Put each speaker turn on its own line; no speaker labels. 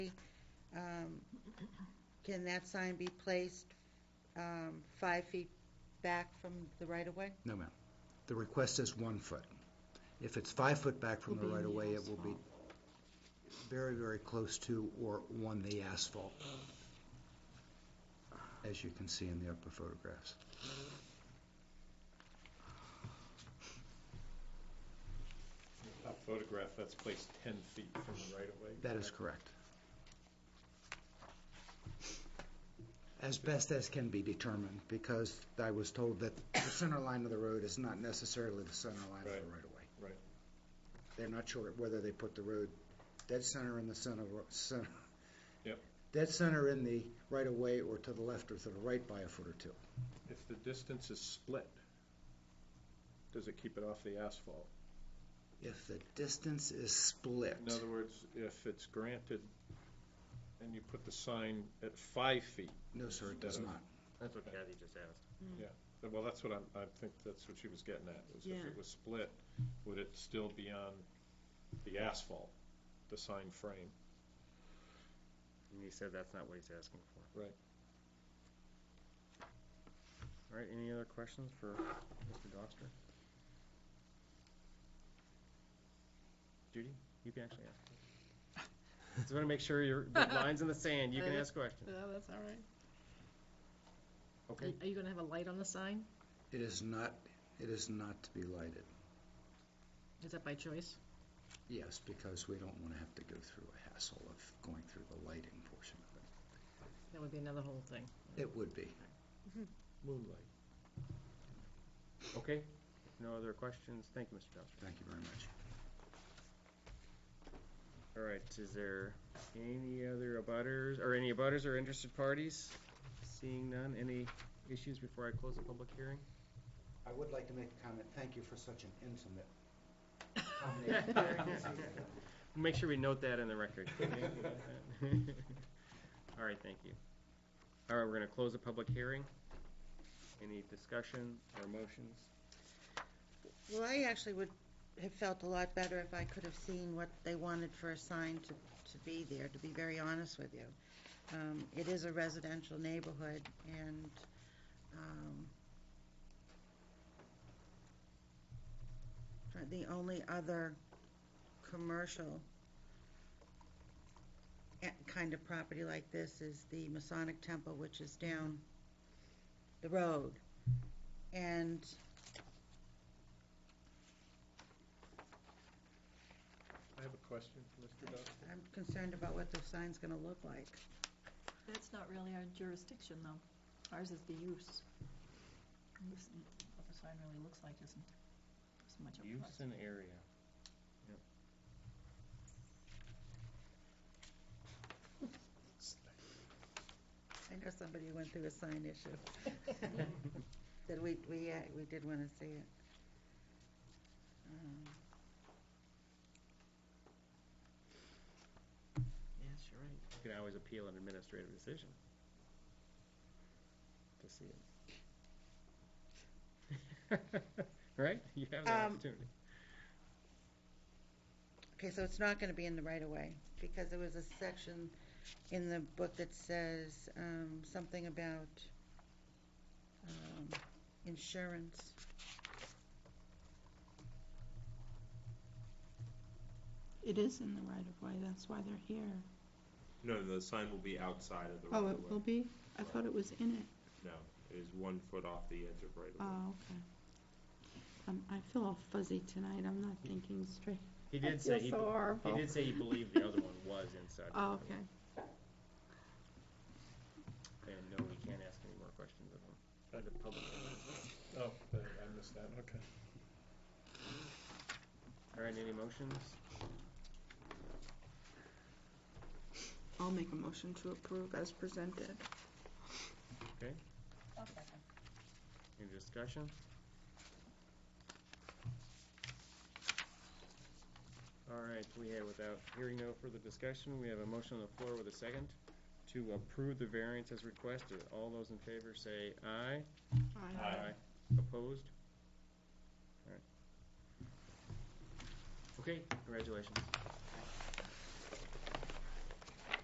um, can that sign be placed um, five feet back from the right-of-way?
No, ma'am. The request is one foot. If it's five foot back from
Will
the
be in
right of
the
way, it will be
asphalt.
very, very close to or on the asphalt, as you can see in the upper photographs.
Top photograph, that's placed 10 feet from the right-of-way.
That is correct. As best as can be determined, because I was told that the center line of the road is not necessarily the center line of the
Right,
right of way.
right.
They're not sure whether they put the road dead center in the center, ro- center.
Yep.
Dead center in the right of way or to the left or to the right by a foot or two.
If the distance is split, does it keep it off the asphalt?
If the distance is split,
In other words, if it's granted and you put the sign at five feet,
no, sir, it does
Instead of-
not.
That's what Kathy just asked.
well, that's what I'm, I think that's what she was getting at, is if
Yeah.
it was split, would it still be on the asphalt, the sign frame?
And you said that's not what he's asking for.
Right.
All right, any other questions for Mr. Doster? Judy, you can actually ask. Just want to make sure your the line's in the sand. You can ask questions.
Yeah, Oh, that's all right.
Okay,
Are you gonna have a light on the sign?
It is not, it is not to be lighted.
Is that by choice?
Yes, because we don't want to have to go through a hassle of going through the lighting portion of it.
That would be another whole thing.
It would be.
Moonlight.
okay. No other questions. Thank you, Mr. Doster.
Thank you very much.
All right, is there any other abutters, or any abutters or interested parties? Seeing none, any issues before I close the public hearing?
I would like to make a comment. Thank you for such an intimate
Make sure we note that in the record. All right, thank you. All right, we're gonna close the public hearing. Any discussion or motions?
Well, I actually would have felt a lot better if I could have seen what they wanted for a sign to, to be there, to be very honest with you. Um, It is a residential neighborhood, and um, uh, the only other commercial a- kind of property like this is the Masonic Temple, which is down the road. And
I have a question for Mr. Dodd.
I'm concerned about what the sign's gonna look like.
That's not really our jurisdiction, though. Ours is the use. And this- What the sign really looks like isn't as much of
Use
us.
and area. Yep.
I know somebody went through a sign issue. That we, we, uh, we did wanna see it. Um,
Yes, you're right.
You can always appeal an administrative decision. To see it. Right? You have that
Um,
opportunity.
Okay, so it's not gonna be in the right of way, because there was a section in the book that says, um, something about, um, insurance.
It is in the right of way, that's why they're here.
No, the sign will be outside of the right
Oh,
of
it will
way.
be? I thought it was in it.
It is one foot off the edge of right of way.
Oh, okay. Um, I feel all fuzzy tonight, I'm not thinking straight.
He
I
did say
feel
he,
so
be- he
horrible.
did say he believed the other one was inside. the
Oh,
building.
okay.
And no, we can't ask any more questions of them. Under public hearing.
Oh, I missed that, okay.
All right, any motions?
I'll make a motion to approve as presented.
I'll second.
Any discussion? All right, we have, without hearing no further discussion, we have a motion on the floor with a second to approve the variance as requested. All those in favor say aye. Opposed? All right. Okay, congratulations.